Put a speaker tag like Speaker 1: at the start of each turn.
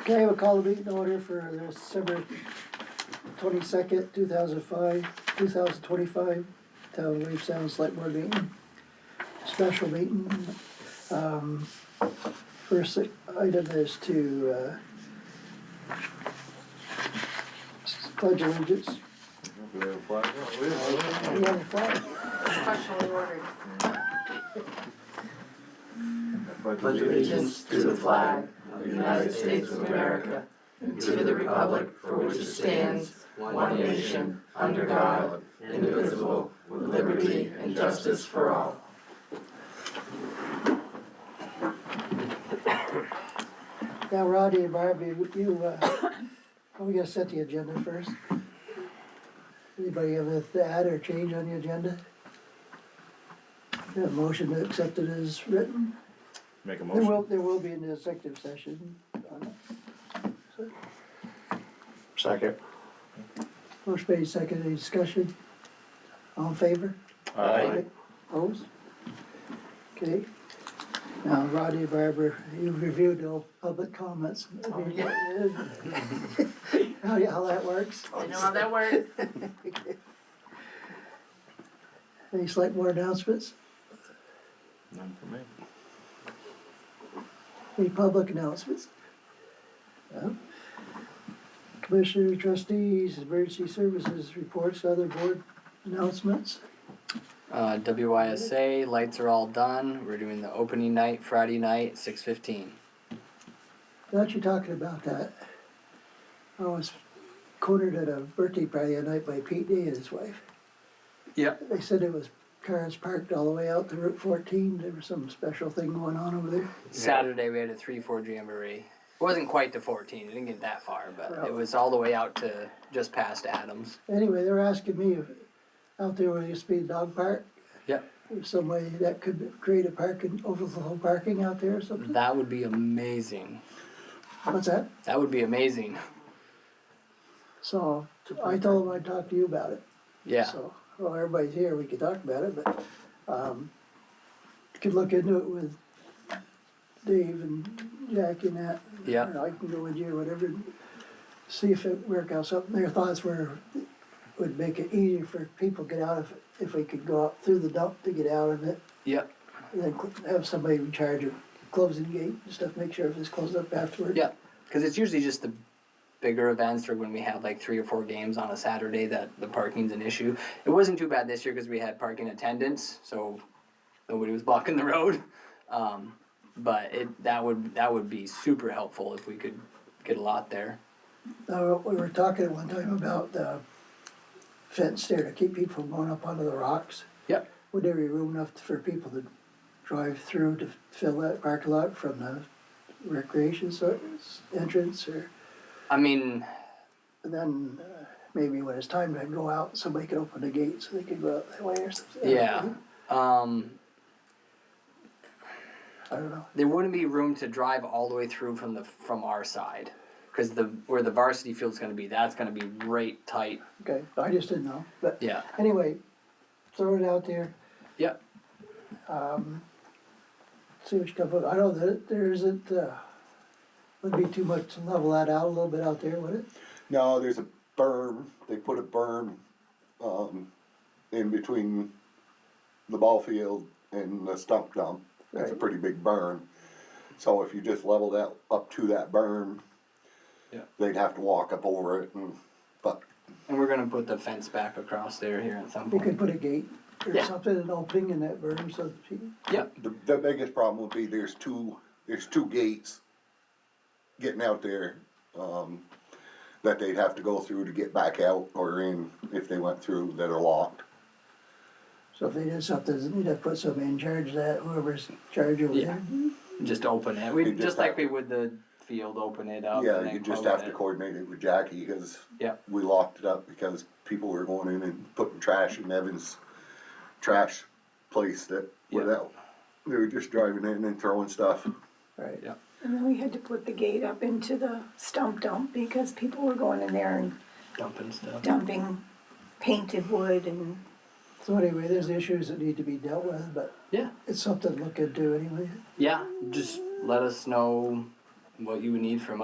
Speaker 1: Okay, we'll call the meeting order for December twenty-second, two thousand five, two thousand twenty-five, Town of Wave Sound Select Board Meeting. Special meeting, um, first item is to, uh, pledge allegiance.
Speaker 2: Do we have a flag? Oh, we have
Speaker 1: We have a flag.
Speaker 3: Specially ordered.
Speaker 2: one.
Speaker 4: pledge allegiance to the flag of the United States of America and to the republic for which it stands, one nation, under God, indivisible, with liberty and justice for all.
Speaker 1: Now, Roddy and Barbie, would you, uh, are we gonna set the agenda first? Anybody have a th- add or change on the agenda? That motion to accept it is written.
Speaker 2: Make a
Speaker 1: There will,
Speaker 2: motion.
Speaker 1: there will be an executive session.
Speaker 4: Second.
Speaker 1: Motion made, second, any discussion? All in favor?
Speaker 4: Aye.
Speaker 1: Opposed? Okay. Now, Roddy and Barbara, you've reviewed all public comments.
Speaker 3: Oh, yeah.
Speaker 1: How, how that works?
Speaker 3: I know how that works.
Speaker 1: Any select board announcements?
Speaker 2: None for me.
Speaker 1: Any public announcements? No? Commissioner trustees, emergency services reports, other board announcements?
Speaker 5: Uh, WYSA lights are all done. We're doing the opening night Friday night, six fifteen.
Speaker 1: Thought you talking about that. I was cornered at a birthday party the night by Pete D and his wife.
Speaker 5: Yep.
Speaker 1: They said it was cars parked all the way out to Route fourteen. There was some special thing going on over there.
Speaker 5: Saturday we had a three four jamboree. It wasn't quite to fourteen. It didn't get that far, but
Speaker 1: Right.
Speaker 5: it was all the way out to just past Adams.
Speaker 1: Anyway, they were asking me if out there where there used to be a dog park,
Speaker 5: Yep.
Speaker 1: if some way that could create a parking, overflow parking out there or something.
Speaker 5: That would be amazing. Mm-hmm.
Speaker 1: What's that?
Speaker 5: That would be amazing.
Speaker 1: So I told him I'd talk to you about it.
Speaker 5: Yeah.
Speaker 1: So, well, everybody's here, we could talk about it, but, um, could look into it with Dave and Jackie and that.
Speaker 5: Yeah.
Speaker 1: Or I can go with you, whatever, and see if it work out something. Their thoughts were, would make it easier for people to get out if, if we could go out through the dump to get out of it.
Speaker 5: Yep.
Speaker 1: And then cl- have somebody in charge of closing the gate and stuff, make sure if it's closed up afterward.
Speaker 5: Yep. Because it's usually just the bigger events or when we have like three or four games on a Saturday that the parking's an issue. It wasn't too bad this year because we had parking attendance, so nobody was blocking the road. Um, but it that would that would be super helpful if we could get a lot there.
Speaker 1: Uh, we were talking at one time about the fence there to keep people from going up onto the rocks.
Speaker 5: Yep.
Speaker 1: Would there be room enough for people to drive through to fill that parking lot from the recreation so- entrance or?
Speaker 5: I mean,
Speaker 1: And then uh, maybe when it's time to go out, somebody could open the gate so they could go out that way or something.
Speaker 5: yeah. Um,
Speaker 1: I don't know.
Speaker 5: there wouldn't be room to drive all the way through from the from our side because the where the varsity field's going to be, that's going to be right tight.
Speaker 1: Okay, I just didn't know, but
Speaker 5: Yeah.
Speaker 1: anyway, throw it out there.
Speaker 5: Yep.
Speaker 1: See which comes up. I know that there isn't, uh, would be too much to level that out a little bit out there, would it?
Speaker 6: No, there's a berm, they put a berm, um, in between the ball field and the stump dump. That's a
Speaker 1: Right.
Speaker 6: pretty big berm. So if you just level that up to that berm,
Speaker 5: Yeah.
Speaker 6: they'd have to walk up over it and, but
Speaker 5: And we're gonna put the fence back across there here at some
Speaker 1: You
Speaker 5: point.
Speaker 1: could put a gate or
Speaker 5: Yeah.
Speaker 1: something, an opening in that berm so that people,
Speaker 5: Yep,
Speaker 6: the, the biggest problem would be there's two, there's two gates getting out there, um, that they'd have to go through to get back out or in if they went through that are locked.
Speaker 1: so if they did something, you'd have to put somebody in charge of that, whoever's in charge over
Speaker 5: Yeah.
Speaker 1: there.
Speaker 5: just open it. We,
Speaker 6: You just
Speaker 5: just like
Speaker 6: have
Speaker 5: we
Speaker 6: to-
Speaker 5: would the field, open it up. and
Speaker 6: Yeah,
Speaker 5: then
Speaker 6: you just
Speaker 5: close
Speaker 6: have to
Speaker 5: it.
Speaker 6: coordinate it with Jackie, cause
Speaker 5: Yep,
Speaker 6: we locked it up because people were going in and putting trash in Evan's trash place that
Speaker 5: Yeah.
Speaker 6: without, they were just driving in and throwing stuff.
Speaker 1: Right.
Speaker 5: Yeah.
Speaker 7: And then we had to put the gate up into the stump dump because people were going in there and
Speaker 5: dumping stuff.
Speaker 7: dumping painted wood and
Speaker 1: So anyway, there's issues that need to be dealt with, but
Speaker 5: Yeah,
Speaker 1: it's something to look into anyway.
Speaker 5: yeah, just let us know what you would need from